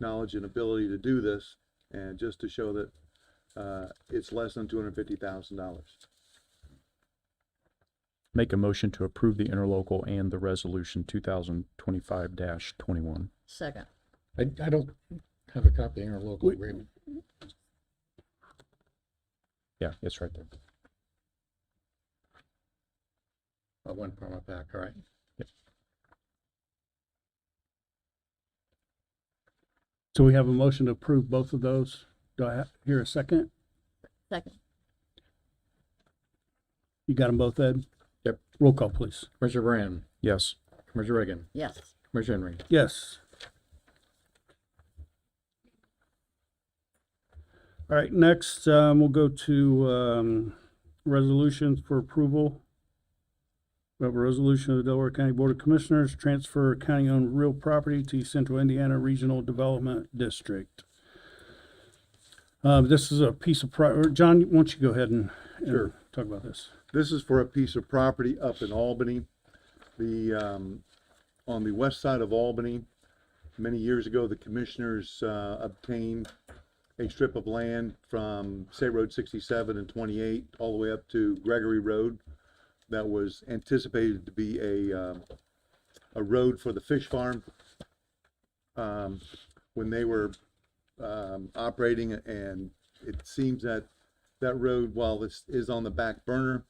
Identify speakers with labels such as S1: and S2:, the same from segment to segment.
S1: knowledge and ability to do this, and just to show that, uh, it's less than two hundred and fifty thousand dollars.
S2: Make a motion to approve the interlocal and the resolution two thousand twenty-five twenty-one.
S3: Second.
S4: I, I don't have a copy of our local
S1: We-
S4: agreement.
S2: Yeah, it's right there.
S4: I went from my back, all right.
S5: So we have a motion to approve both of those. Do I ha- hear a second?
S3: Second.
S5: You got them both, Ed?
S4: Yep.
S5: Roll call, please.
S4: Commissioner Brand,
S2: Yes,
S4: Commissioner Reagan,
S3: Yes.
S4: Commissioner Henry.
S5: Yes. All right, next, um, we'll go to, um, resolutions for approval. We have a resolution of the Delaware County Board of Commissioners, transfer county-owned real property to Central Indiana Regional Development District. Uh, this is a piece of pro, or John, why don't you go ahead and, and
S1: Sure.
S5: talk about this?
S1: This is for a piece of property up in Albany. The, um, on the west side of Albany, many years ago, the commissioners, uh, obtained a strip of land from State Road sixty-seven and twenty-eight, all the way up to Gregory Road. That was anticipated to be a, um, a road for the fish farm. Um, when they were, um, operating and it seems that that road, while this is on the back burner,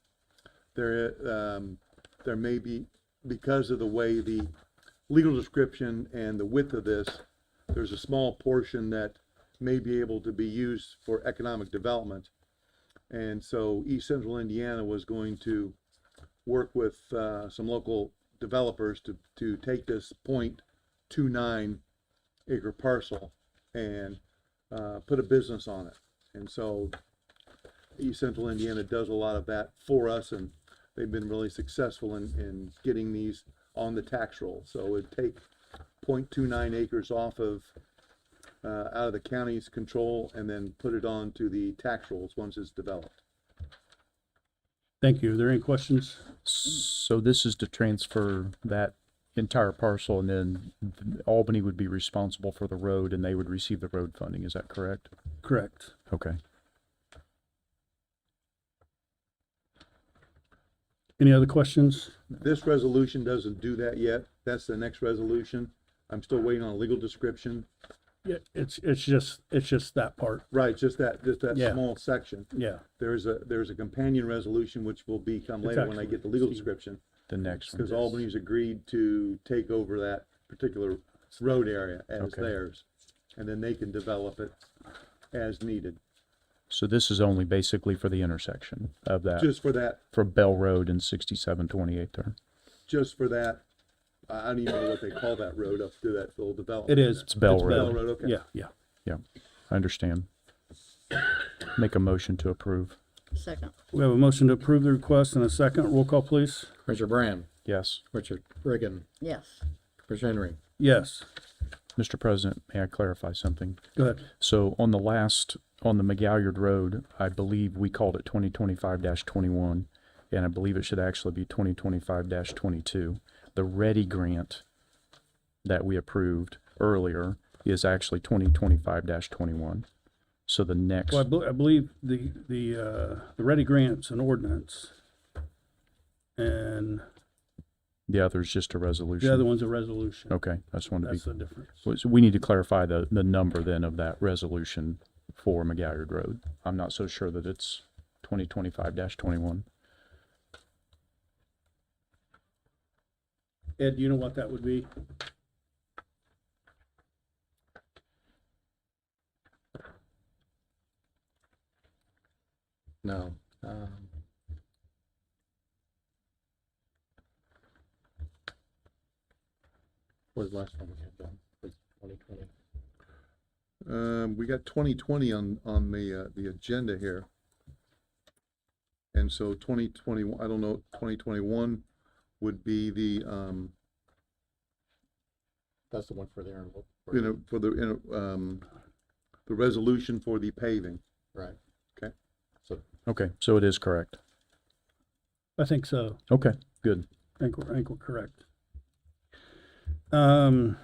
S1: there, um, there may be, because of the way the legal description and the width of this, there's a small portion that may be able to be used for economic development. And so East Central Indiana was going to work with, uh, some local developers to, to take this point two nine acre parcel and, uh, put a business on it. And so East Central Indiana does a lot of that for us, and they've been really successful in, in getting these on the tax roll. So it would take 0.29 acres off of, uh, out of the county's control and then put it on to the tax rolls once it's developed.
S5: Thank you. Are there any questions?
S2: so this is to transfer that entire parcel and then Albany would be responsible for the road and they would receive the road funding, is that correct?
S5: Correct.
S2: Okay.
S5: Any other questions?
S1: This resolution doesn't do that yet. That's the next resolution. I'm still waiting on a legal description.
S5: Yeah, it's, it's just, it's just that part.
S1: Right, just that, just that
S5: Yeah.
S1: small section.
S5: Yeah.
S1: There's a, there's a companion resolution which will become
S5: It's
S1: later when I
S5: actually-
S1: get the legal description.
S2: The next one.
S1: Because Albany's agreed to take over that particular road area as
S2: Okay.
S1: theirs, and then they can develop it as needed,
S2: So this is only basically for the intersection of that,
S1: just for that,
S2: for Bell Road and sixty-seven twenty-eight there.
S1: just for that, I I don't even know what they call that road up to that little development.
S5: It is.
S2: It's Bell
S5: It's
S1: Bell
S2: Road.
S1: Road, okay.
S5: Yeah, yeah.
S2: Yeah, I understand. Make a motion to approve.
S3: Second.
S5: We have a motion to approve the request and a second. Roll call, please.
S4: Commissioner Brand,
S2: Yes.
S4: Commissioner Reagan,
S3: Yes.
S4: Commissioner Henry.
S5: Yes,
S2: Mr. President, may I clarify something?
S5: go ahead.
S2: So on the last, on the McGalliard Road, I believe we called it twenty twenty-five twenty-one, and I believe it should actually be twenty twenty-five twenty-two. The Ready Grant that we approved earlier is actually twenty twenty-five twenty-one. So the next,
S5: Well, I bel- I believe the, the, uh, the ready grants and ordinance. And
S2: the other is just a
S5: the other
S2: resolution.
S5: one's a resolution.
S2: Okay, I just wanted to be
S5: That's the difference.
S2: Well, So we need to clarify the, the number then of that resolution for McGalliard Road. I'm not so sure that it's twenty twenty-five twenty-one.
S5: Ed, do you know what that would be?
S4: No. um, What was the last one we had done? Was 2020.
S1: Um, we got twenty twenty on, on the, uh, the agenda here. And so twenty twenty, I don't know, twenty twenty-one would be the, um,
S4: That's the one for the interlocal.
S1: you know, for the, you know, um, the resolution for the paving.
S4: Right.
S1: Okay.
S4: So
S2: Okay, so it is correct.
S5: I think so.
S2: Okay, good.
S5: I think, we're- I think we're correct. Um,